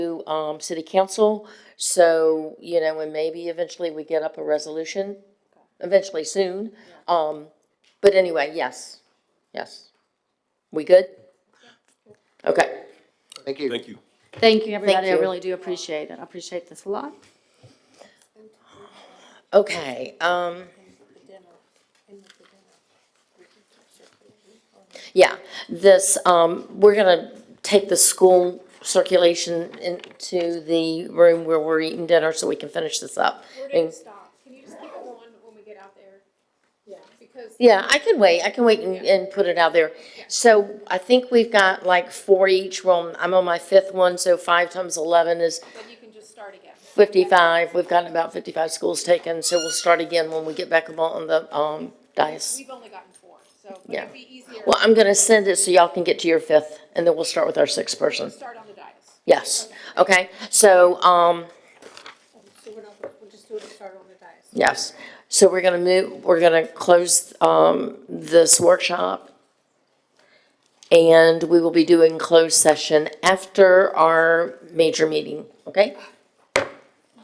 to, um, city council. So, you know, and maybe eventually we get up a resolution, eventually soon. Um, but anyway, yes, yes. We good? Okay, Thank you. Thank you. Thank you, everybody. I you. really do appreciate it. I appreciate this a lot. okay, um. Yeah, this, um, we're gonna take the school circulation into the room where we're eating dinner so we can finish this up. We're And- gonna stop. Can you just keep it on when we get out there? Yeah. Because Yeah, I can wait, I can wait and, and put it out there. So I think we've got like four each room, I'm on my fifth one, so five times eleven is then you can just start again. fifty-five. We've gotten about fifty-five schools taken, so we'll start again when we get back up on the, um, dais. We've only gotten four, so but Yeah. it'd be easier Well, I'm gonna send it so y'all can get to your fifth, and then we'll start with our sixth to person. start on the dais. Yes, okay, so, um, So we're not, we'll just do it and start on the dais. yes. So we're gonna move, we're gonna close, um, this workshop. And we will be doing closed session after our major meeting, okay?